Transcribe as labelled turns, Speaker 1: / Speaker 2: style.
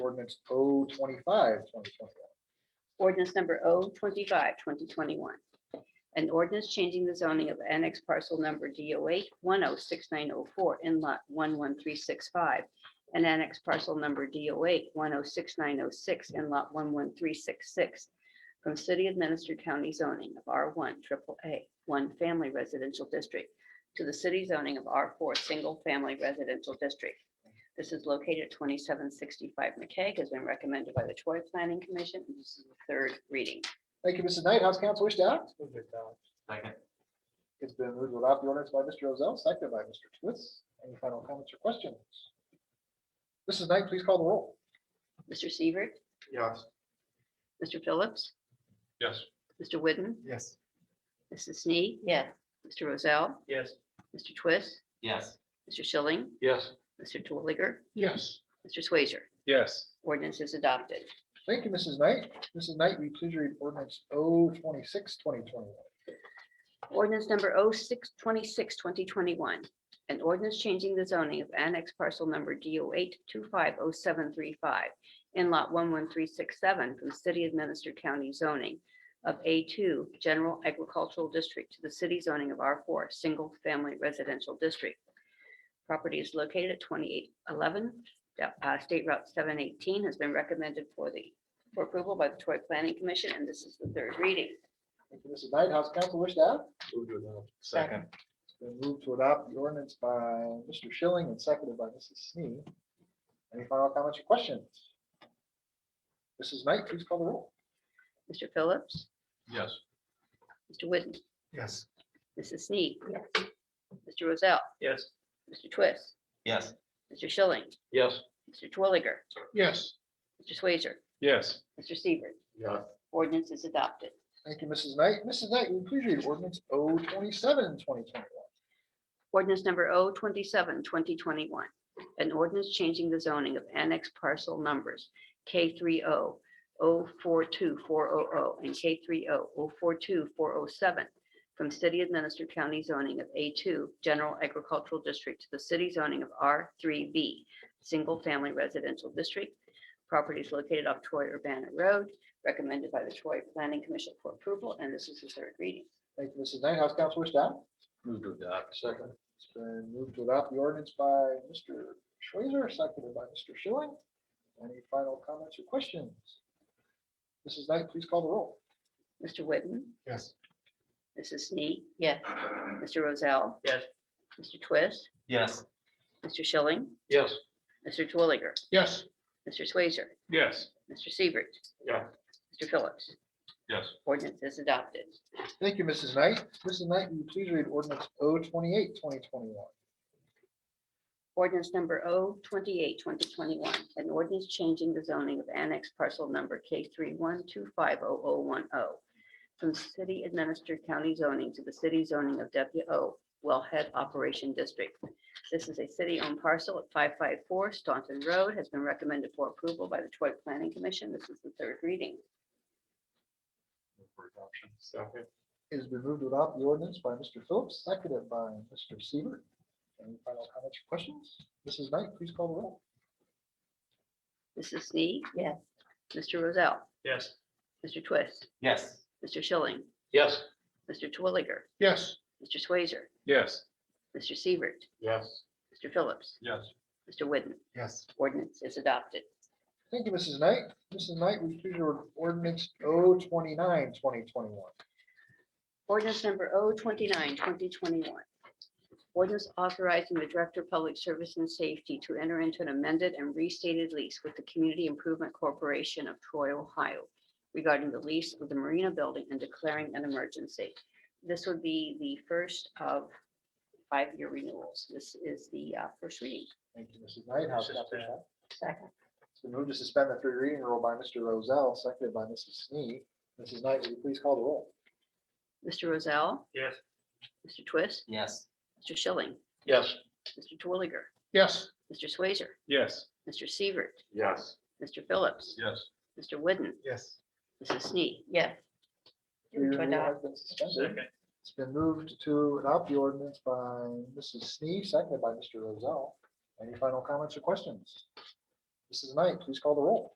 Speaker 1: ordinance O twenty-five, twenty twenty-one.
Speaker 2: Ordinance number O twenty-five, twenty twenty-one. An ordinance changing the zoning of annex parcel number D O eight one oh six nine oh four in lot one one three six five. And annex parcel number D O eight one oh six nine oh six in lot one one three six six. From city administered county zoning of R one triple A, one family residential district. To the city zoning of R four, single family residential district. This is located at twenty-seven sixty-five McKay, has been recommended by the Troy Planning Commission. and This is the third reading.
Speaker 1: Thank you, Mrs. Knight. House counsel wish to act?
Speaker 3: Second.
Speaker 1: It's been moved without the ordinance by Mr. Rozell, seconded by Mr. Twist. Any final comments or questions? Mrs. Knight, please call the roll.
Speaker 2: Mr. Seaver,
Speaker 3: Yes.
Speaker 2: Mr. Phillips,
Speaker 3: Yes.
Speaker 2: Mr. Whidden,
Speaker 3: Yes.
Speaker 2: Mrs. Snee. Yes. Mr. Rozell,
Speaker 3: Yes.
Speaker 2: Mr. Twist,
Speaker 3: Yes.
Speaker 2: Mr. Schilling,
Speaker 3: Yes.
Speaker 2: Mr. Twilliger,
Speaker 3: Yes.
Speaker 2: Mr. Swazer.
Speaker 3: Yes.
Speaker 2: Ordinance is adopted.
Speaker 1: Thank you, Mrs. Knight. Mrs. Knight, will you please read ordinance oh O 26 2021?
Speaker 2: Ordinance number 0626 2021, An ordinance changing the zoning of annex parcel number D O eight two five oh seven three five in lot one one three six seven from city administered county zoning of A two general agricultural district to the city zoning of R four single family residential district. Property is located at twenty-eight eleven, uh, State Route seven eighteen has been recommended for the for approval by the Troy Planning Commission, and this is the third reading.
Speaker 1: Thank you, Mrs. Knight. House counsel wish to act?
Speaker 3: Second.
Speaker 1: Been moved to adopt the ordinance by Mr. Schilling and seconded by Mrs. Snee. Any final comments or questions? Mrs. Knight, please call the roll.
Speaker 2: Mr. Phillips,
Speaker 3: Yes.
Speaker 2: Mr. Whitten,
Speaker 3: Yes.
Speaker 2: Mrs. Snead. Mr. Rozell,
Speaker 3: Yes.
Speaker 2: Mr. Twist,
Speaker 3: Yes.
Speaker 2: Mr. Schilling,
Speaker 3: Yes.
Speaker 2: Mr. Twilliger,
Speaker 3: Yes.
Speaker 2: Mr. Swazer,
Speaker 3: Yes.
Speaker 2: Mr. Seaver.
Speaker 3: Yes.
Speaker 2: Ordinance is adopted.
Speaker 1: Thank you, Mrs. Knight. Mrs. Knight, will you please read ordinance O 27 2021?
Speaker 2: Ordinance number 027-2021, An ordinance changing the zoning of annex parcel numbers K 300 042 and K 300 042 407 from city administered county zoning of A two general agricultural district to the city zoning of R three B single family residential district. Property is located off Troy Urbana Road, recommended by the Troy Planning Commission for approval, and this is the third reading.
Speaker 1: Thank you, Mrs. Knight. House counsel wish to act?
Speaker 3: Move to adopt. Second.
Speaker 1: It's been moved to adopt the ordinance by Mr. Schweitzer, seconded by Mr. Schilling. Any final comments or questions? Mrs. Knight, please call the roll.
Speaker 2: Mr. Whitten,
Speaker 1: Yes.
Speaker 2: Mrs. Snead. Yes. Mr. Rozell.
Speaker 3: Yes.
Speaker 2: Mr. Twist,
Speaker 3: Yes.
Speaker 2: Mr. Schilling,
Speaker 3: Yes.
Speaker 2: Mr. Twilliger,
Speaker 3: Yes.
Speaker 2: Mr. Swazer,
Speaker 3: Yes.
Speaker 2: Mr. Seaver,
Speaker 3: Yeah.
Speaker 2: Mr. Phillips.
Speaker 3: Yes.
Speaker 2: Ordinance is adopted.
Speaker 1: Thank you, Mrs. Knight. Mrs. Knight, will you please read ordinance O 28 2021?
Speaker 2: Ordinance number 028-2021, an ordinance changing the zoning of annex parcel number K three one two five oh oh one oh from city administered county zoning to the city zoning of WO Wellhead Operation District. This is a city-owned parcel at five five four Staunton Road, has been recommended for approval by the Troy Planning Commission. This is the third reading.
Speaker 3: For adoption. Second.
Speaker 1: It has been moved without the ordinance by Mr. Phillips, seconded by Mr. Seaver. Any final comments or questions? Mrs. Knight, please call the roll.
Speaker 2: Mrs. Snee. Yes. Mr. Rozell,
Speaker 3: Yes.
Speaker 2: Mr. Twist,
Speaker 3: Yes.
Speaker 2: Mr. Schilling,
Speaker 3: Yes.
Speaker 2: Mr. Twilliger,
Speaker 3: Yes.
Speaker 2: Mr. Swazer,
Speaker 3: Yes.
Speaker 2: Mr. Seaver,
Speaker 3: Yes.
Speaker 2: Mr. Phillips,
Speaker 3: Yes.
Speaker 2: Mr. Whitten.
Speaker 3: Yes.
Speaker 2: ordinance is adopted.
Speaker 1: Thank you, Mrs. Knight. Mrs. Knight, will you please read ordinance O 29 2021?
Speaker 2: Ordinance number 029-2021. Ordinance authorizing the Director of Public Service and Safety to enter into an amended and restated lease with the Community Improvement Corporation of Troy, Ohio regarding the lease of the Marina Building and declaring an emergency. This would be the first of five-year renewals. This is the uh, first reading.
Speaker 1: Thank you, Mrs. Knight. House
Speaker 3: Mrs.
Speaker 1: Counsel
Speaker 3: Knight.
Speaker 1: Sharp.
Speaker 2: Second.
Speaker 1: It's been moved to suspend the three reading rule by Mr. Rozell, seconded by Mrs. Snee. Mrs. Knight, will you please call the roll?
Speaker 2: Mr. Rozell,
Speaker 3: Yes.
Speaker 2: Mr. Twist,
Speaker 3: Yes.
Speaker 2: Mr. Schilling,
Speaker 3: Yes.
Speaker 2: Mr. Twilliger,
Speaker 3: Yes.
Speaker 2: Mr. Swazer,
Speaker 3: Yes.
Speaker 2: Mr. Seaver,
Speaker 3: Yes.
Speaker 2: Mr. Phillips,
Speaker 3: Yes.
Speaker 2: Mr. Whidden,
Speaker 3: Yes.
Speaker 2: Mrs. Snead. Yes.
Speaker 1: Three reading rule has been suspended.
Speaker 3: Second.
Speaker 1: It's been moved to adopt the ordinance by Mrs. Snee, seconded by Mr. Rozell. Any final comments or questions? Mrs. Knight, please call the roll.